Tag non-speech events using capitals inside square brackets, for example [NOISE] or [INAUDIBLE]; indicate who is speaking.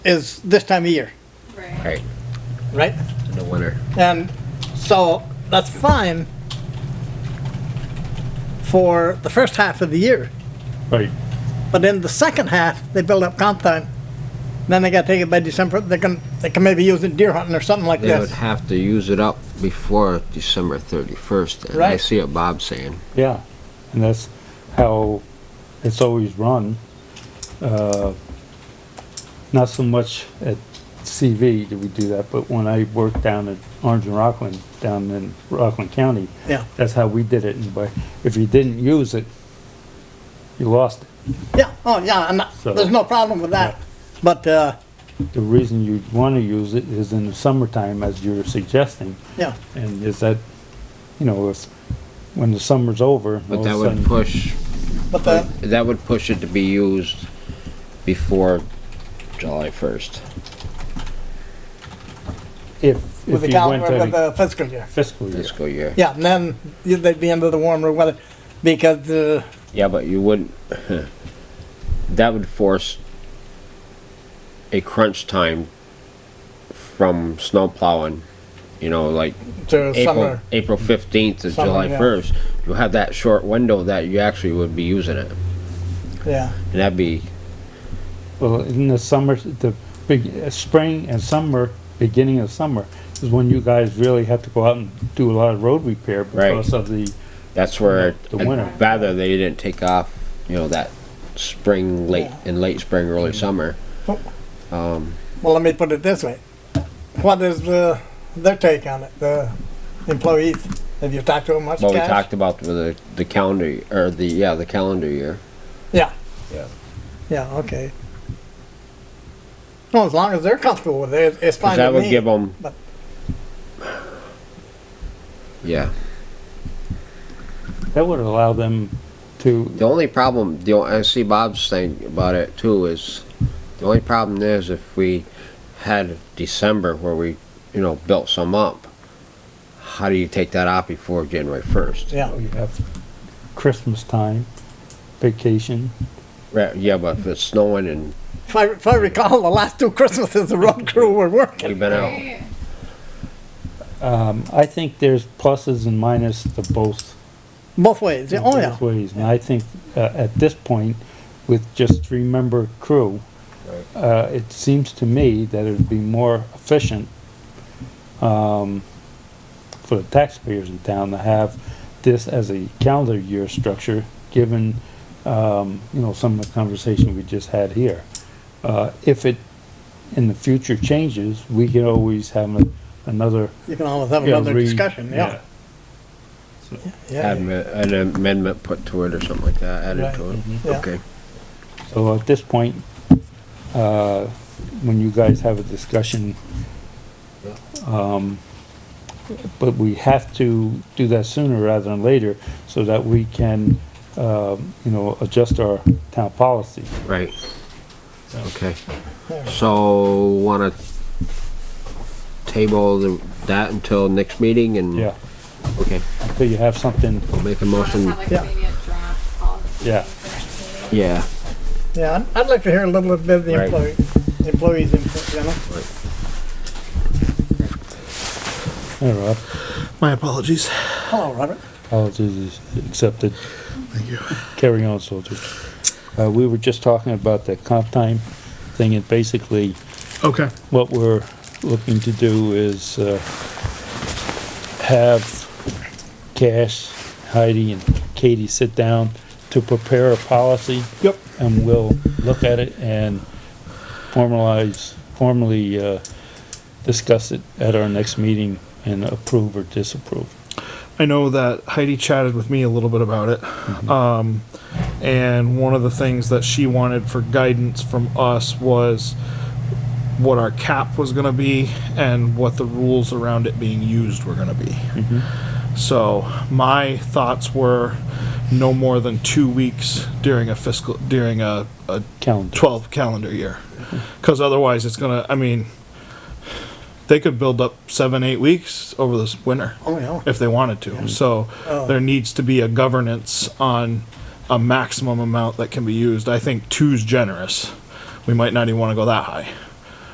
Speaker 1: is this time of year,
Speaker 2: Right.
Speaker 3: Right,
Speaker 1: right?
Speaker 3: in the winter.
Speaker 1: And so that's fine for the first half of the year.
Speaker 4: Right.
Speaker 1: But in the second half, they build up comp time. Then they gotta take it by December, they can, they can maybe use it deer hunting or something like
Speaker 3: They would
Speaker 1: this.
Speaker 3: have to use it up before December thirty-first, and I
Speaker 1: Right.
Speaker 3: see what Bob's saying.
Speaker 4: Yeah, and that's how it's always run. Uh, Not so much at CV did we do that, but when I worked down at Orange and Rockland, down in Rockland County,
Speaker 1: Yeah,
Speaker 4: that's how we did it. And by- if you didn't use it, you lost it.
Speaker 1: yeah, oh, yeah, and
Speaker 4: So-
Speaker 1: there's no problem with that. But, uh,
Speaker 4: The reason you want to use it is in the summertime, as you're suggesting,
Speaker 1: yeah,
Speaker 4: and is that, you know, if, when the summer's over. all
Speaker 3: But
Speaker 4: of
Speaker 3: that
Speaker 4: a
Speaker 3: would
Speaker 4: sudden-
Speaker 3: push,
Speaker 1: but the,
Speaker 3: that would push it to be used before July first.
Speaker 4: If,
Speaker 1: with
Speaker 4: if
Speaker 1: the
Speaker 4: you went
Speaker 1: calendar,
Speaker 4: to
Speaker 1: with
Speaker 4: the
Speaker 1: the fiscal year.
Speaker 4: fiscal year.
Speaker 3: fiscal year.
Speaker 1: Yeah, and then you- they'd be under the warmer weather because, uh,
Speaker 3: Yeah, but you wouldn't, [LAUGHS] that would force a crunch time from snow plowing, you know, like
Speaker 1: to
Speaker 3: April,
Speaker 1: uh, summer.
Speaker 3: April fifteenth to
Speaker 1: Summer,
Speaker 3: July
Speaker 1: yeah.
Speaker 3: first. You have that short window that you actually would be using it,
Speaker 1: Yeah,
Speaker 3: and that'd be,
Speaker 4: Well, in the summer, the big, uh, spring and summer, beginning of summer, is when you guys really have to go out and do a lot of road repair
Speaker 3: Right.
Speaker 4: because of the,
Speaker 3: that's where
Speaker 4: The winter.
Speaker 3: I'd rather they didn't take off, you know, that spring, late,
Speaker 1: Yeah.
Speaker 3: in late spring, early
Speaker 4: Mm-hmm.
Speaker 3: summer.
Speaker 1: Oh.
Speaker 3: Um,
Speaker 1: well, let me put it this way. What is the, their take on it, the employees? Have you talked to them much,
Speaker 3: well, we
Speaker 1: Cash?
Speaker 3: talked about the, the calendar, or the, yeah, the calendar year.
Speaker 1: Yeah.
Speaker 3: Yeah.
Speaker 1: Yeah, okay. Well, as long as they're comfortable with it, it's
Speaker 3: Cause
Speaker 1: fine
Speaker 3: that
Speaker 1: with
Speaker 3: would
Speaker 1: me.
Speaker 3: give them.
Speaker 1: but-
Speaker 3: Yeah,
Speaker 4: that would allow them to,
Speaker 3: the only problem, the, o- I see Bob's thing about it too is, the only problem is if we had December where we, you know, built some up, how do you take that out before January first?
Speaker 1: Yeah,
Speaker 4: you have Christmas time, vacation.
Speaker 3: Right, yeah, but if it's snowing and
Speaker 1: if I, if I recall, the last two Christmases, the road crew were working.
Speaker 3: we've been out,
Speaker 4: Um, I think there's pluses and minuses to both.
Speaker 1: Both ways, yeah, oh yeah,
Speaker 4: both Ways, and I think, uh, at this point, with just three-member crew, uh, it seems to me that it'd be more efficient, um, for the taxpayers in town to have this as a calendar year structure, given, um, you know, some of the conversation we just had here. Uh, if it, in the future changes, we can always have a- another.
Speaker 1: you can always have
Speaker 4: you know,
Speaker 1: another
Speaker 4: re-
Speaker 1: discussion, yeah. Yeah,
Speaker 3: have
Speaker 1: yeah,
Speaker 3: an amendment put to it or something like that, added
Speaker 1: Right, Mm-hmm.
Speaker 3: to it.
Speaker 1: yeah.
Speaker 3: Okay,
Speaker 4: So at this point, uh, when you guys have a discussion, um, but we have to do that sooner rather than later so that we can, um, you know, adjust our town policy.
Speaker 3: right. Okay.
Speaker 1: yeah.
Speaker 3: So, wanna table the, that until next meeting and?
Speaker 4: Yeah,
Speaker 3: Okay,
Speaker 4: so you have something,
Speaker 3: I'll make a motion,
Speaker 1: Yeah.
Speaker 4: Yeah.
Speaker 3: yeah,
Speaker 1: Yeah, I'd- I'd like to hear a little bit of the
Speaker 3: Right.
Speaker 1: employee, employees' input, you know?
Speaker 4: all right,
Speaker 5: My apologies.
Speaker 1: Hello, Robert.
Speaker 4: apologies is accepted. Carry on, soldier. Uh, we were just talking about the comp time thing and basically,
Speaker 5: Okay.
Speaker 4: what we're looking to do is uh, have Cash, Heidi, and Katie sit down to prepare a policy. Yep. And we'll look at it and formalize, formally uh, discuss it at our next meeting and approve or disapprove.
Speaker 5: I know that Heidi chatted with me a little bit about it. Um, and one of the things that she wanted for guidance from us was what our cap was going to be and what the rules around it being used were going to be. So my thoughts were no more than two weeks during a fiscal during a, a
Speaker 4: Calendar.
Speaker 5: 12 calendar year because otherwise it's gonna i mean they could build up seven eight weeks over this winter
Speaker 1: Oh, yeah.
Speaker 5: if they wanted to so
Speaker 1: Oh.
Speaker 5: there needs to be a governance on a maximum amount that can be used i think two's generous we might not even want to go that high